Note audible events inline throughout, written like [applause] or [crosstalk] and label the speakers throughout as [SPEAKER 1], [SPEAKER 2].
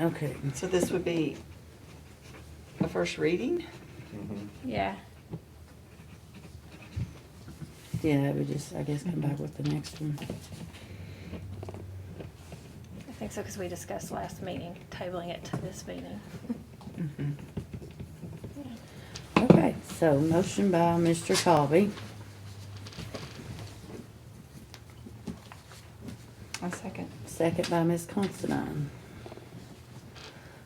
[SPEAKER 1] Okay.
[SPEAKER 2] So this would be a first reading?
[SPEAKER 3] Yeah.
[SPEAKER 1] Yeah, we just, I guess, come back with the next one.
[SPEAKER 3] I think so, because we discussed last meeting, tabling it to this meeting. [laughs]
[SPEAKER 1] Okay, so motion by Mr. Colby.
[SPEAKER 4] A second.
[SPEAKER 1] Second by Ms. Considine.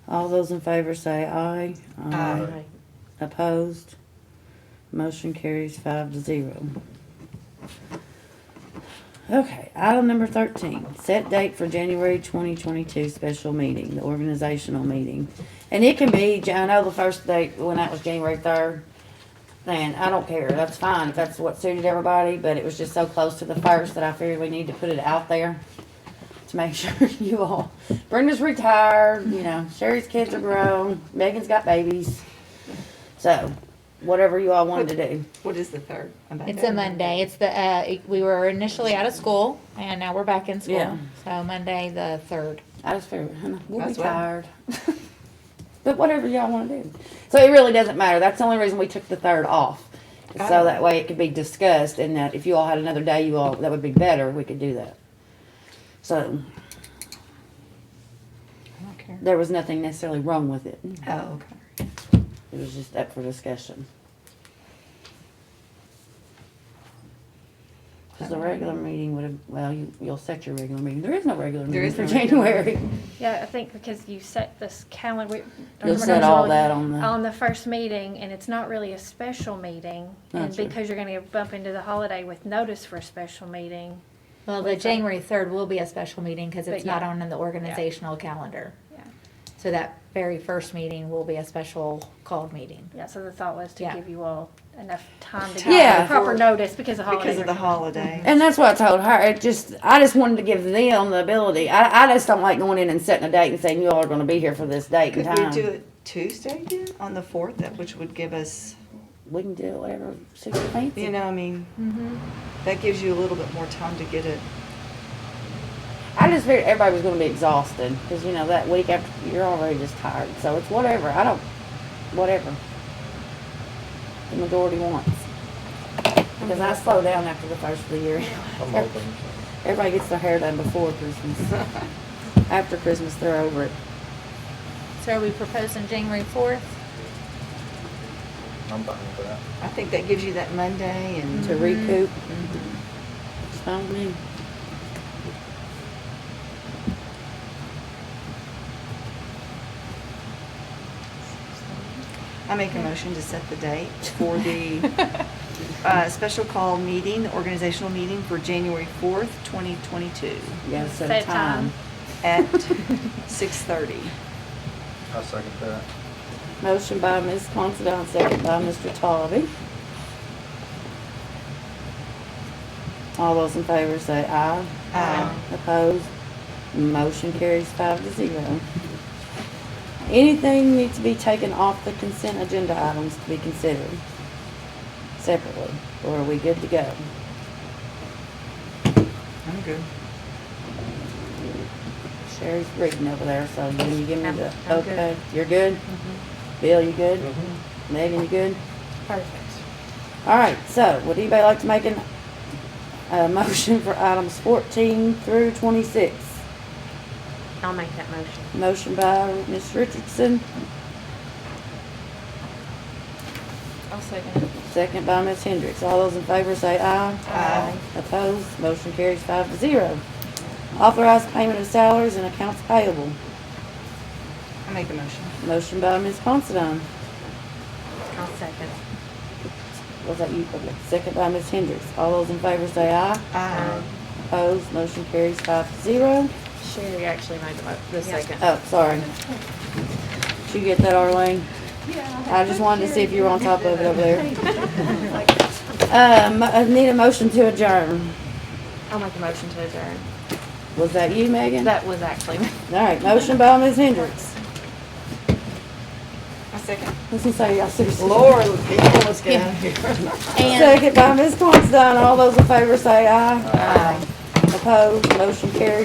[SPEAKER 1] All those in favor say aye.
[SPEAKER 2] Aye.
[SPEAKER 1] Opposed? Motion carries five to zero. Okay, item number thirteen, set date for January twenty twenty-two special meeting, the organizational meeting. And it can be, I know the first date when that was January third, then I don't care, that's fine, if that's what suited everybody, but it was just so close to the first that I figured we need to put it out there to make [laughs] sure you all, Brenda's retired, you know, Sherry's kids are grown, Megan's got babies. So, whatever you all wanted to do.
[SPEAKER 2] What is the third? I'm back.
[SPEAKER 5] It's a Monday. It's the, uh, we were initially out of school and now we're back in school.
[SPEAKER 1] Yeah.
[SPEAKER 5] So Monday, the third.
[SPEAKER 1] I just figured, huh, we'll be
[SPEAKER 2] That's what-
[SPEAKER 1] tired. [laughs] But whatever y'all wanna do. So it really doesn't matter. That's the only reason we took the third off. So
[SPEAKER 2] Oh.
[SPEAKER 1] that way it could be discussed and that if you all had another day, you all, that would be better, we could do that. So,
[SPEAKER 4] I don't care.
[SPEAKER 1] there was nothing necessarily wrong with it.
[SPEAKER 2] Oh, okay.
[SPEAKER 1] It was just up for discussion. Cause the regular meeting would have, well, you, you'll set your regular meeting. There is no regular
[SPEAKER 2] There
[SPEAKER 1] meeting
[SPEAKER 2] is
[SPEAKER 1] for
[SPEAKER 2] no regular
[SPEAKER 1] January.
[SPEAKER 3] Yeah, I think because you set this calendar. we-
[SPEAKER 1] You'll set all that on the,
[SPEAKER 3] On the first meeting, and it's not really a special meeting, and
[SPEAKER 1] That's right.
[SPEAKER 3] because you're gonna bump into the holiday with notice for a special meeting.
[SPEAKER 5] Well, the January third will be a special meeting because it's
[SPEAKER 3] But yeah.
[SPEAKER 5] not on the organizational calendar.
[SPEAKER 3] Yeah.
[SPEAKER 5] So that very first meeting will be a special called meeting.
[SPEAKER 3] Yeah, so the thought was to
[SPEAKER 5] Yeah.
[SPEAKER 3] give you all enough time to
[SPEAKER 1] Yeah.
[SPEAKER 3] get proper notice because of holidays.
[SPEAKER 2] Because of the holiday.
[SPEAKER 1] and that's what I told her. It just, I just wanted to give them the ability. I, I just don't like going in and setting a date and saying you all are gonna be here for this date and
[SPEAKER 2] Could we do
[SPEAKER 1] time.
[SPEAKER 2] it Tuesday then, on the fourth, That which would give us,
[SPEAKER 1] We can do it whatever suits your
[SPEAKER 2] you
[SPEAKER 1] fancy.
[SPEAKER 2] know, I mean,
[SPEAKER 5] Mm-hmm.
[SPEAKER 2] that gives you a little bit more time to get it.
[SPEAKER 1] I just figured everybody was gonna be exhausted, cause you know, that week after, you're already just tired. So it's whatever. I don't, whatever. The majority wants. Because I slow down after the first of the year. [laughs]
[SPEAKER 6] I'm open.
[SPEAKER 1] Everybody gets their hair done before
[SPEAKER 2] [laughs]
[SPEAKER 1] Christmas. After Christmas, they're over it.
[SPEAKER 5] So are we proposing January fourth?
[SPEAKER 6] I'm fine with that.
[SPEAKER 2] I think that gives you that Monday and.
[SPEAKER 1] to recoup.
[SPEAKER 5] Mm-hmm.
[SPEAKER 1] It's fine with me.
[SPEAKER 2] I make a motion to set the date for the
[SPEAKER 5] [laughs]
[SPEAKER 2] uh, special call meeting, the organizational meeting for January 4th, 2022
[SPEAKER 1] Yeah, set a
[SPEAKER 3] Set a
[SPEAKER 1] time.
[SPEAKER 3] time.
[SPEAKER 5] [laughs]
[SPEAKER 2] at 6:30.
[SPEAKER 6] I second that.
[SPEAKER 1] [laughs] Motion by Ms. Considine, second by Mr. Tolby. All those in favor say aye.
[SPEAKER 2] Aye.
[SPEAKER 1] Opposed? Motion carries five to zero. Anything needs to be taken off the consent agenda items to be considered separately, or are we good to go?
[SPEAKER 2] I'm good.
[SPEAKER 1] Sherry's reading over there, so can you give me the,
[SPEAKER 3] I'm- I'm good. Mm-hmm.
[SPEAKER 1] okay, you're good? Bill, you good?
[SPEAKER 2] Mm-hmm.
[SPEAKER 1] Megan, you good?
[SPEAKER 5] Perfect.
[SPEAKER 1] All right, so would anybody like to make an, a motion for items fourteen through twenty-six?
[SPEAKER 7] I'll make that motion.
[SPEAKER 1] Motion by Ms. Richardson,
[SPEAKER 4] I'll second.
[SPEAKER 1] second by Ms. Hendricks. All those in favor say aye.
[SPEAKER 2] Aye.
[SPEAKER 1] Opposed, motion carries five to zero. Authorized payment of salaries and accounts payable.
[SPEAKER 2] I make a motion.
[SPEAKER 1] Motion by Ms. Considine.
[SPEAKER 7] I'll second.
[SPEAKER 1] Was that you? Okay. Second by Ms. Hendricks. All those in favor say aye.
[SPEAKER 2] Aye.
[SPEAKER 1] Opposed, motion carries five to zero.
[SPEAKER 7] Sherry actually made the, mo- the second.
[SPEAKER 1] Oh, sorry. Did you get that, Arlene? Yeah. I just wanted to see if you were on top of it over [laughs] there. Um, I need a motion to adjourn.
[SPEAKER 7] I'll make a motion to adjourn.
[SPEAKER 1] Was that you, Megan? All
[SPEAKER 7] That was actually me.
[SPEAKER 1] right, motion by Ms. Hendricks.
[SPEAKER 2] I second.
[SPEAKER 1] Let's just say y'all seriously.
[SPEAKER 2] Lord, people, let's get out of
[SPEAKER 1] [laughs]
[SPEAKER 2] here.
[SPEAKER 1] Second by Ms. Considine. All those in favor say aye. Aye. Opposed, motion carries.